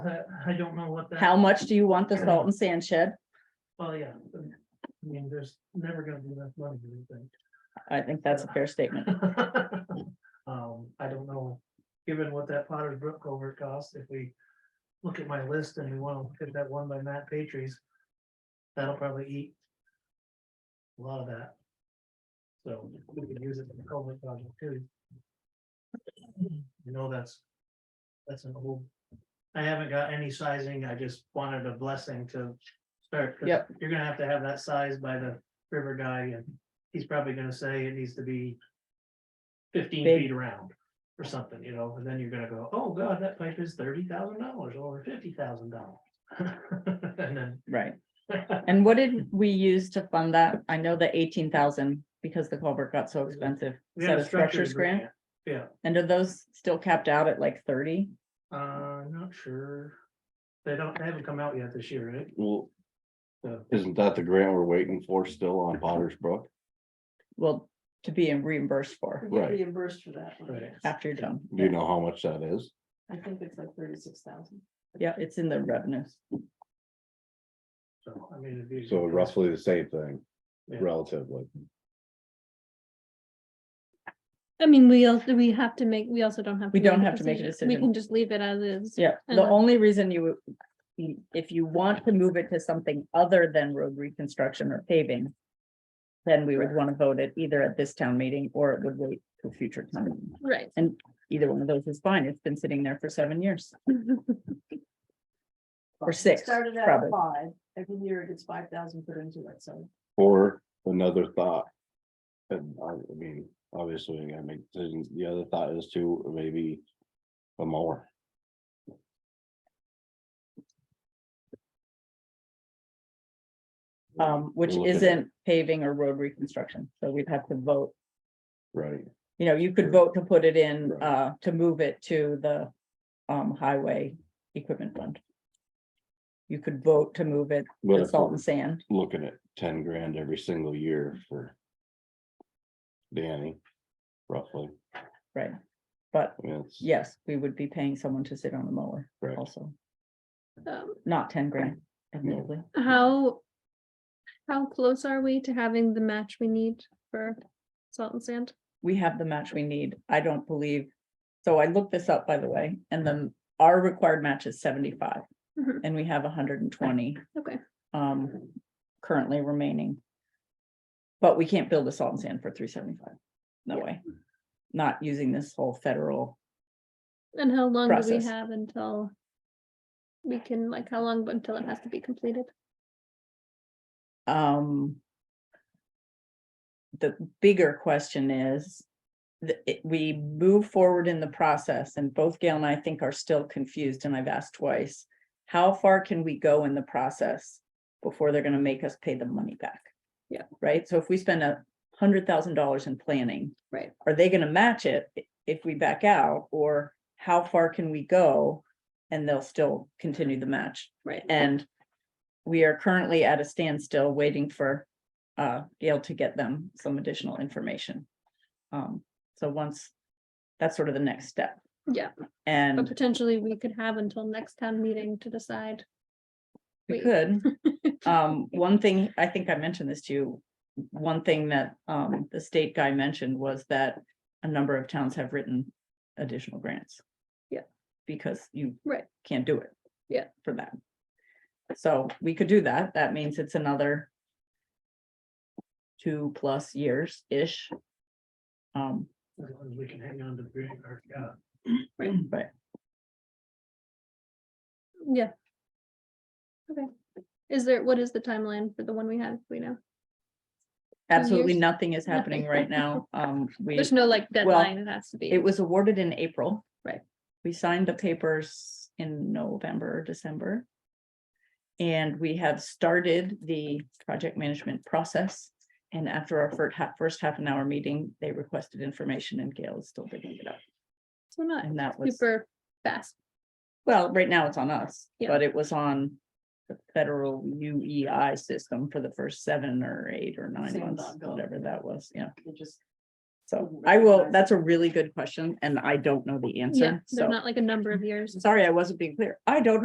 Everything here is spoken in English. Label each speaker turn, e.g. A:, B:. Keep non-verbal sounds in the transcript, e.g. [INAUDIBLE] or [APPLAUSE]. A: I, I don't know what that.
B: How much do you want the salt and sand shed?
A: Well, yeah. I mean, there's never gonna be enough money, I think.
B: I think that's a fair statement.
A: [LAUGHS] Um, I don't know, given what that Potter's Brook culvert costs, if we look at my list and we wanna look at that one by Matt Patrice. That'll probably eat. A lot of that. So we could use it for the culvert project too. You know, that's. That's an old. I haven't got any sizing, I just wanted a blessing to start. 'cause
B: Yep.
A: You're gonna have to have that size by the river guy and he's probably gonna say it needs to be fifteen
B: Big.
A: feet around or something, you know, and then you're gonna go, oh god, that pipe is thirty thousand dollars or fifty thousand dollars. [LAUGHS] And
B: Right.
A: then
B: And what did we use to fund that? I know the eighteen thousand because the culvert got so expensive.
A: we
B: Is
A: had
B: that
A: a
B: a structures grant?
A: Yeah,
B: And are those still capped out at like thirty?
A: uh, not sure. They don't, they haven't come out yet this year, right?
C: Well,
A: So,
C: isn't that the grant we're waiting for still on Potter's Brook?
B: Well, to be reimbursed for
D: We get
C: Right.
D: reimbursed for that. one,
A: Right.
D: yes.
B: after you're done.
C: Do you know how much that is?
D: I think it's like thirty-six thousand.
B: Yeah, it's in the revenues.
A: so, I mean. it'd be-
C: So roughly the same thing,
A: Yeah.
C: relatively.
E: I mean, we also, we have to make, we also don't have.
B: We don't have
E: a
B: to make a
E: We
B: decision.
E: can just leave it as is.
B: Yeah, the
E: Uh-huh.
B: only reason you, would- if you want to move it to something other than road reconstruction or paving. Then we would want to vote it either at this town meeting or it would wait till future time.
E: Right.
B: Either one of those is fine. It's been sitting there for seven years. Or six,
D: Started out
B: probably.
D: at five, every year it gets five thousand put into it, so.
C: Or another thought. And I I mean, obviously, I gotta make decisions. The other thought is to maybe a mower.
B: Um, which
C: We'll look at that.
B: isn't paving or road reconstruction, so we'd have to vote,
C: Right,
B: you know, you could
C: Sure.
B: vote to put it in,
C: Right.
B: uh, to move it to the. Um, highway equipment fund. You could vote to move it
C: but
B: to
C: if
B: salt
C: we're
B: and sand,
C: looking at ten grand every single year for Danny, roughly,
B: right? But
C: I mean, it's,
B: yes, we would be paying someone to sit on the mower
C: Correct.
B: also,
E: Um,
B: not ten grand admittedly.
E: How, how close are we to having the match we need for salt and sand?
B: we have the match we need. I don't believe. So I looked this up, by the way, and then our required match is seventy-five
E: Mhm.
B: and we have hundred and twenty.
E: Okay.
B: Um, currently remaining. But we can't build a salt and sand for three seventy-five. No way. Not using this whole federal,
E: And how long do we
B: Process.
E: have until we can, like, how long until it has to be completed?
B: um. The bigger question is. that it- we move forward in the process and both Gail and I think are still confused and I've asked twice. How far can we go in the process before they're gonna make us pay the money back?
E: Yeah.
B: Right? So if we spend a hundred thousand dollars in planning.
E: Right.
B: Are they gonna match it i- if we back out or how far can we go? And they'll still continue the match.
E: Right.
B: And we are currently at a standstill waiting for uh Gail to get them some additional information. Um, so once, that's sort of the next step.
E: Yeah, but
B: And
E: potentially we could have until next town meeting to decide.
B: we
E: wait.
B: could,
E: [LAUGHS]
B: um, one thing, I think I mentioned this to you. One thing that um the state guy mentioned was that a number of towns have written additional grants.
E: Yeah.
B: Because you
E: Right.
B: can't do it.
E: Yeah.
B: For that. So we could do that. That means it's another two plus years-ish. Um,
A: As long as we can hang on to the grant, or, yeah,
B: but
E: Yeah. Okay. Is there, what is the timeline for the one we had, we know?
B: absolutely
E: years?
B: nothing is happening
E: Nothing.
B: right now. Um,
E: [LAUGHS]
B: we.
E: There's no like deadline, it has to be.
B: It was awarded in April.
E: Right.
B: We signed the papers in November, or December. And we have started the project management process. And after our first half, first half an hour meeting, they requested information and Gail is still digging it up.
E: So not
B: And that was,
E: super fast.
B: well, right now it's on us,
E: Yeah.
B: but it was on the federal UEI system for the first seven or eight or nine
D: Same
B: months,
D: dot gov.
B: whatever that was, yeah.
D: It just,
B: So
D: Wouldn't
B: I will,
D: recognize
B: that's a really good question and I don't know the
E: Yeah,
B: answer, so.
E: they're not like a number of years.
B: Sorry, I wasn't being clear. I don't